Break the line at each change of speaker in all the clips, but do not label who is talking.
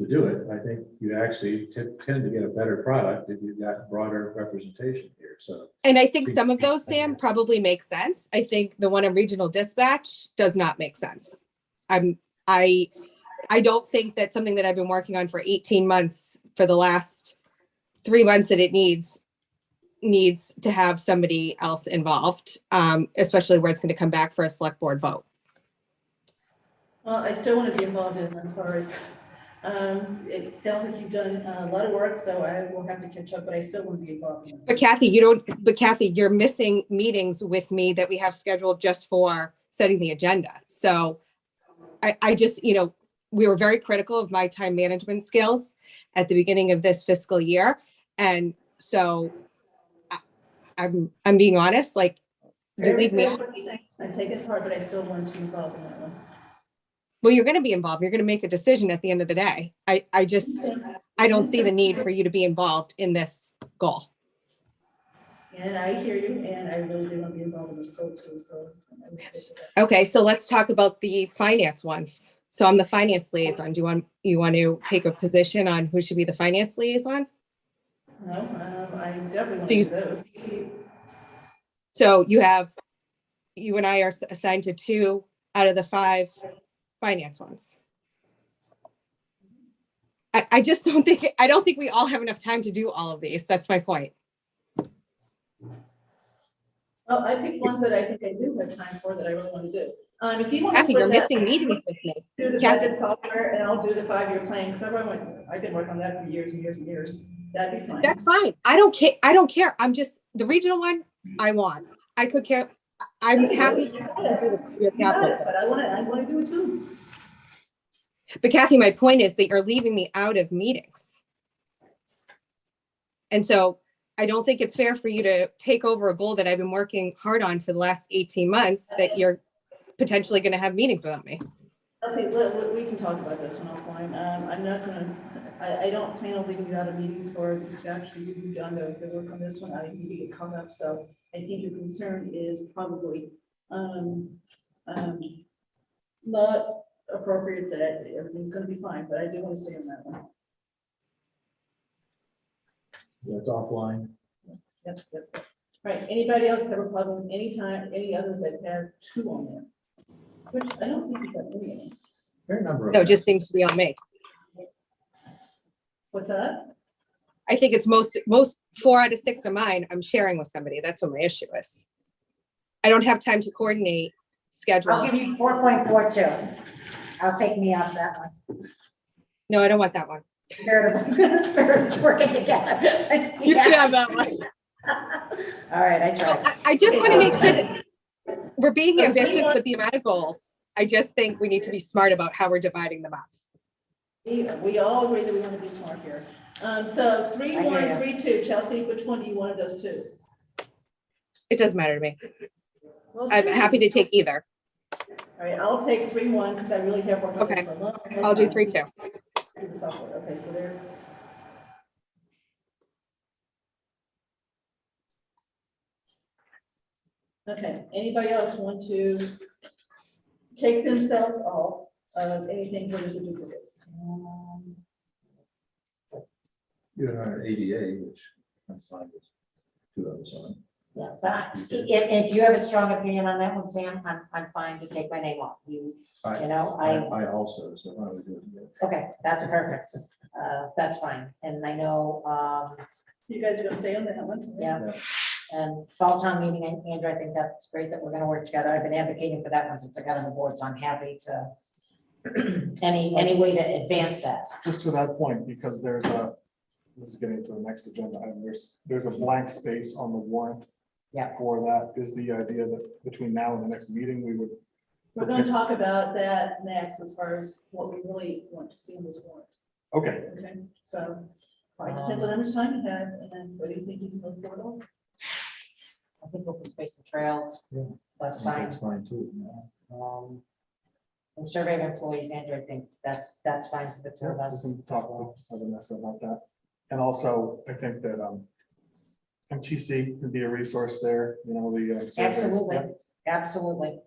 to do it, I think you actually t- tend to get a better product if you've got broader representation here, so.
And I think some of those, Sam, probably make sense. I think the one on regional dispatch does not make sense. I'm, I, I don't think that something that I've been working on for eighteen months, for the last three months that it needs, needs to have somebody else involved, um, especially where it's gonna come back for a select board vote.
Well, I still want to be involved in it, I'm sorry. Um, It sounds like you've done a lot of work, so I will have to catch up, but I still want to be involved in
But
it.
Kathy, you don't, but Kathy, you're missing meetings with me that we have scheduled just for setting the agenda. So I, I just, you know, we were very critical of my time management skills at the beginning of this fiscal year. And so I- I'm, I'm being honest, like, you leave me, out.
I take it hard, but I still want to be involved in that one.
well, you're going to be involved. You're going to make a decision at the end of the day. I, I just, I don't see the need for you to be involved in this goal.
And I hear you, and I really do want to be involved in this goal too, so. I will stick with that.
Okay, so let's talk about the finance ones. So I'm the finance liaison. Do you want, you want to take a position on who should be the finance liaison?
No, um, I definitely want
So you-
to do those.
So you have, you and I are s- assigned to two out of the five finance ones. I, I just don't think, I don't think we all have enough time to do all of these. That's my point.
Well, I picked ones that I think I do have time for that I really want to do. Um, If you want to
Kathy, you're
split that,
missing meetings with me.
do the
Kathy-
budget software, and I'll do the five-year plan, because I've been, I've been working on that for years and years and years. That'd be fine.
That's fine. I don't care. I don't care. I'm just, the regional one, I want. I could care, I- I'm happy to do the your
You got
capital.
it, But I want to, I want to do it too.
But Kathy, my point is that you're leaving me out of meetings. And so I don't think it's fair for you to take over a goal that I've been working hard on for the last 18 months that you're potentially going to have meetings without me.
I'll say, let- let- we can talk about this one offline. Um, I'm not gonna, I, I don't plan on leaving you out of meetings for distraction. You've done the, the work on this one. I need to get caught up, so I think your concern is probably, um, um, not appropriate that everything's gonna be fine, but I do want to stay on that one.
That's offline.
Yep, yep. All Right, anybody else have a problem anytime, any others that have two on there? Which I don't think is that many.
Fair number of.
No, it just seems to be on me.
What's that?
I think it's most, most, four out of six of mine, I'm sharing with somebody. That's what my issue is. I don't have time to coordinate
I'll
schedules.
give you four point four two. I'll take me off that one.
No, I don't want that one.
Spirit of, spirit of working together.
You can
Yeah.
have that one.
All right, I tried.
I- I just want to make sure that we're being ambitious with the amount of goals. I just think we need to be smart about how we're dividing them up.
We, we all agree that we want to be smart here. Um, so three,
I hear
one,
ya.
three, two, Chelsea, which one do you want of those two?
It doesn't matter to me.
Well,
I'm
two.
happy to take either.
All right, I'll take three, one, because I really have worked on
Okay.
this for a long. long
I'll do
time.
three, two.
Do the software. Okay, so there. Okay, anybody else want to take themselves off of anything where there's a duplicate? Um,
You and I are ADA, which I'm fine with. Two others on.
Yeah, but if, if you have a strong opinion on that one, Sam, I'm, I'm fine to take my name off. You, you know, I,
I also, so why don't we do it? together?
okay, that's perfect. Uh, that's fine. And I know, um,
So you guys are gonna stay on that one?
yeah. And fall town meeting, and Andrew, I think that's great that we're gonna work together. I've been advocating for that one since I got on the board, so I'm happy to any, any way to advance that.
just to that point, because there's a, this is getting to the next agenda item, there's, there's a blank space on the warrant.
Yeah.
For that is the idea that between now and the next meeting, we would,
We're gonna talk about that next as far as what we really want to see in this warrant,
okay,
okay? So, all right, depends on how much time you have and then whether you think you can look forward or not.
I think open space and trails,
Yeah.
that's fine.
That's fine too. yeah.
Um, And survey of employees, Andrew, I think that's, that's fine for the two of
we
us.
can talk with Vanessa about that. And also, I think that, um, MTC can be a resource there, you know, the. uh, surveys.
Absolutely,
Yep.
absolutely.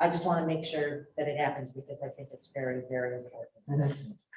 I just want to make sure that it happens because I think it's very, very important.
Mhm.